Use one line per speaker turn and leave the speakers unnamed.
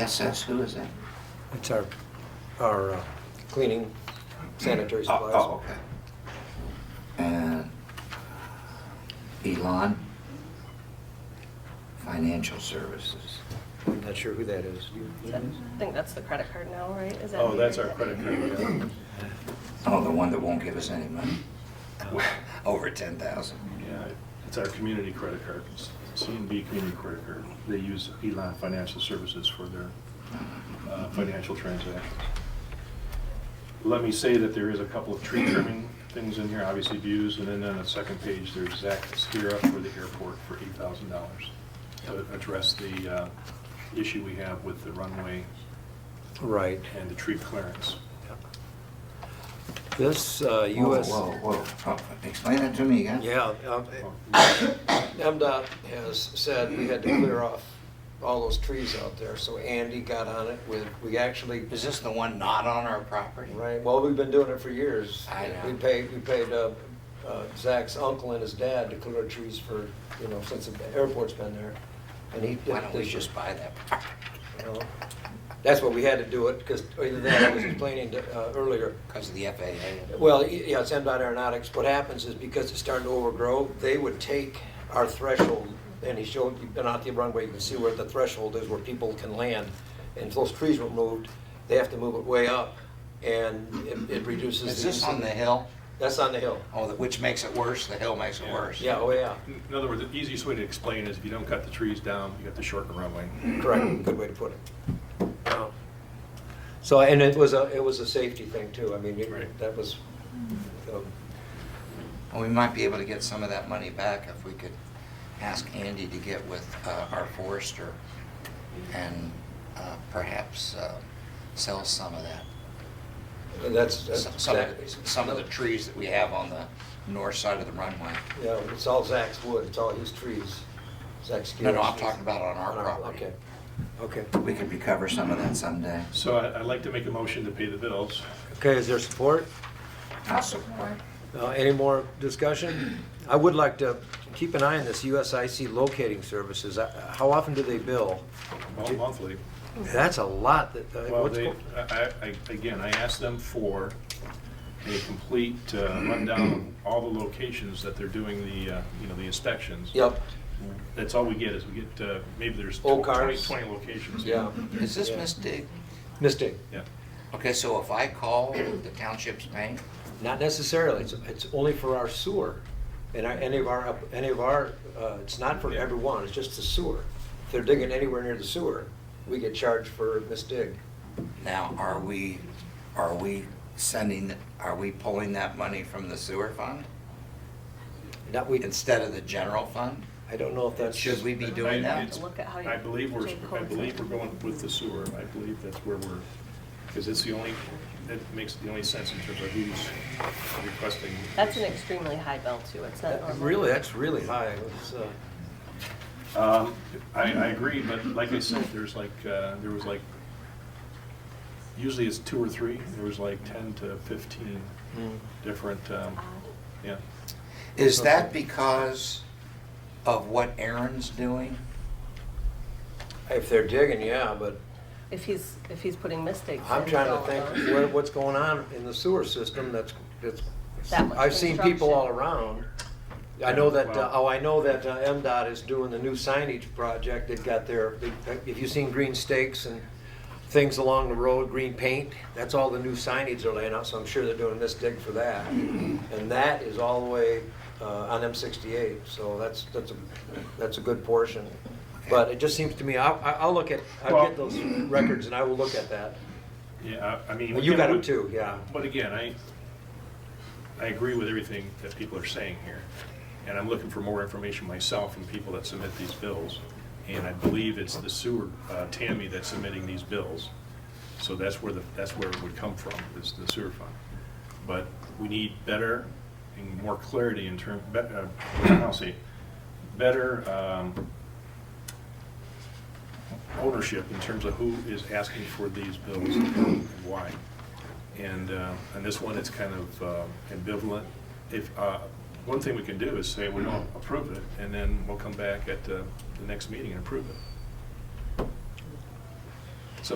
SS, who is that?
It's our, our, uh,
cleaning, sanitary
Oh,
supplies.
Oh, okay. And Elon Financial Services.
I'm not sure who that is. You-
I think that's the credit card now, right? Is that
Oh, that's our credit card, yeah.
Oh, the one that won't give us any money? Over 10,000.
Yeah, it's our community credit card, CNB Community Credit Card. They use Elon Financial Services for their uh, financial transactions. Let me say that there is a couple of tree trimming things in here, obviously views, and then on the second page, there's Zach Stira for the airport for $8,000 to address the uh, issue we have with the runway
right.
and the tree clearance.
This uh,
Whoa,
US,
Whoa, whoa, Oh, explain that to me again.
Yeah, um, MDOT has said we had to clear off all those trees out there, so Andy got on it with, we actually,
Is this the one not on our property?
right, well, we've been doing it for years.
I know.
We paid, we paid uh, uh, Zach's uncle and his dad to clear trees for, you know, since the airport's been there, and he did.
Why don't we
this year.
just buy that property?
you know. That's what we had to do it, because either that, I was explaining to, uh, earlier,
Because of the FAA?
well, y- yeah, it's MDOT Aeronautics. What happens is because it's starting to overgrow, they would take our threshold, and he showed, you've been out the runway, you can see where the threshold is where people can land. And if those trees were moved, they have to move it way up, and it- it reduces.
Is this on the hill?
That's on the hill.
Oh, the- which makes it worse, the hill makes it
Yeah.
worse.
Yeah, oh, yeah,
In other words, the easiest way to explain is if you don't cut the trees down, you got to shorten the runway.
correct, good way to put it. So, and it was a, it was a safety thing too, I mean, it-
Right.
that was, um,
Well, we might be able to get some of that money back if we could ask Andy to get with uh, our forester and uh, perhaps uh, sell some of that.
that's. that's-
Some some of, the- some of the trees that we have on the north side of the runway.
Yeah, it's all Zach's wood, it's all his trees, Zach's.
No, no,
skills.
I'm talking about on our property.
Okay, okay.
We could recover some of that someday.
So I- I'd like to make a motion to pay the bills.
Okay, is there support?
I'll support.
Uh, Any more discussion? I would like to keep an eye on this USIC locating services. Uh, How often do they bill?
Well, Monthly.
That's a lot that, uh,
Well,
what's,
they,
go-
I, I, again, I asked them for a complete uh, rundown of all the locations that they're doing the, uh, you know, the inspections.
Yep,
That's all we get is we get, uh, maybe there's
Old
20,
cars.
20 locations.
yeah,
Is this
Yeah.
Miss Dig?
Mystic,
Yeah.
Okay, so if I call the township's bank,
not necessarily, it's, it's only for our sewer. And our, any of our, up- any of our, uh, it's not for
Yeah.
everyone, it's just the sewer. If they're digging anywhere near the sewer, we get charged for misdig.
now are we, are we sending, are we pulling that money from the sewer fund?
Not we,
instead of the general fund?
I don't know if that's.
Should we be
I-
doing that?
it's-
Look at how you
I believe we're,
take
I
hold.
believe we're going with the sewer. I believe that's where we're, because it's the only, that makes the only sense in terms of who's requesting.
That's an extremely high bill too. It's not
that-
normal.
really, that's really high. It's, uh,
Um, I, I agree, but like I said, there's like, uh, there was like, usually it's two or three, there was like ten to fifteen
Hmm.
different, um,
Uh,
yeah.
Is that because of what Aaron's doing?
If they're digging, yeah, but
If he's, if he's putting mistakes.
I'm
in,
trying to
it's all
think
about-
what, what's going on in the sewer system that's, that's,
That much
I've seen people all around. I know that, uh,
Wow.
oh, I know that uh, MDOT is doing the new signage project, they've got their, they- if you've seen green stakes and things along the road, green paint, that's all the new signage they're laying out, so I'm sure they're doing this dig for that. And that is all the way, uh, on M sixty-eight, so that's, that's a, that's a good portion. But it just seems to me, I'll, I'll look at, I'll get
Well-
those records and I will look at that.
Yeah, I I mean.
Well, you got
again,
them too, yeah.
But again, I, I agree with everything that people are saying here. And I'm looking for more information myself from people that submit these bills. And I believe it's the sewer, uh, Tammy that's submitting these bills. So that's where the, that's where it would come from, is the sewer fund. But we need better and more clarity in term, bet- uh, I'll say, better, um, ownership in terms of who is asking for these bills and why. And, uh, and this one, it's kind of uh, ambivalent. If, uh, one thing we can do is say we don't approve it, and then we'll come back at uh, the next meeting and approve it.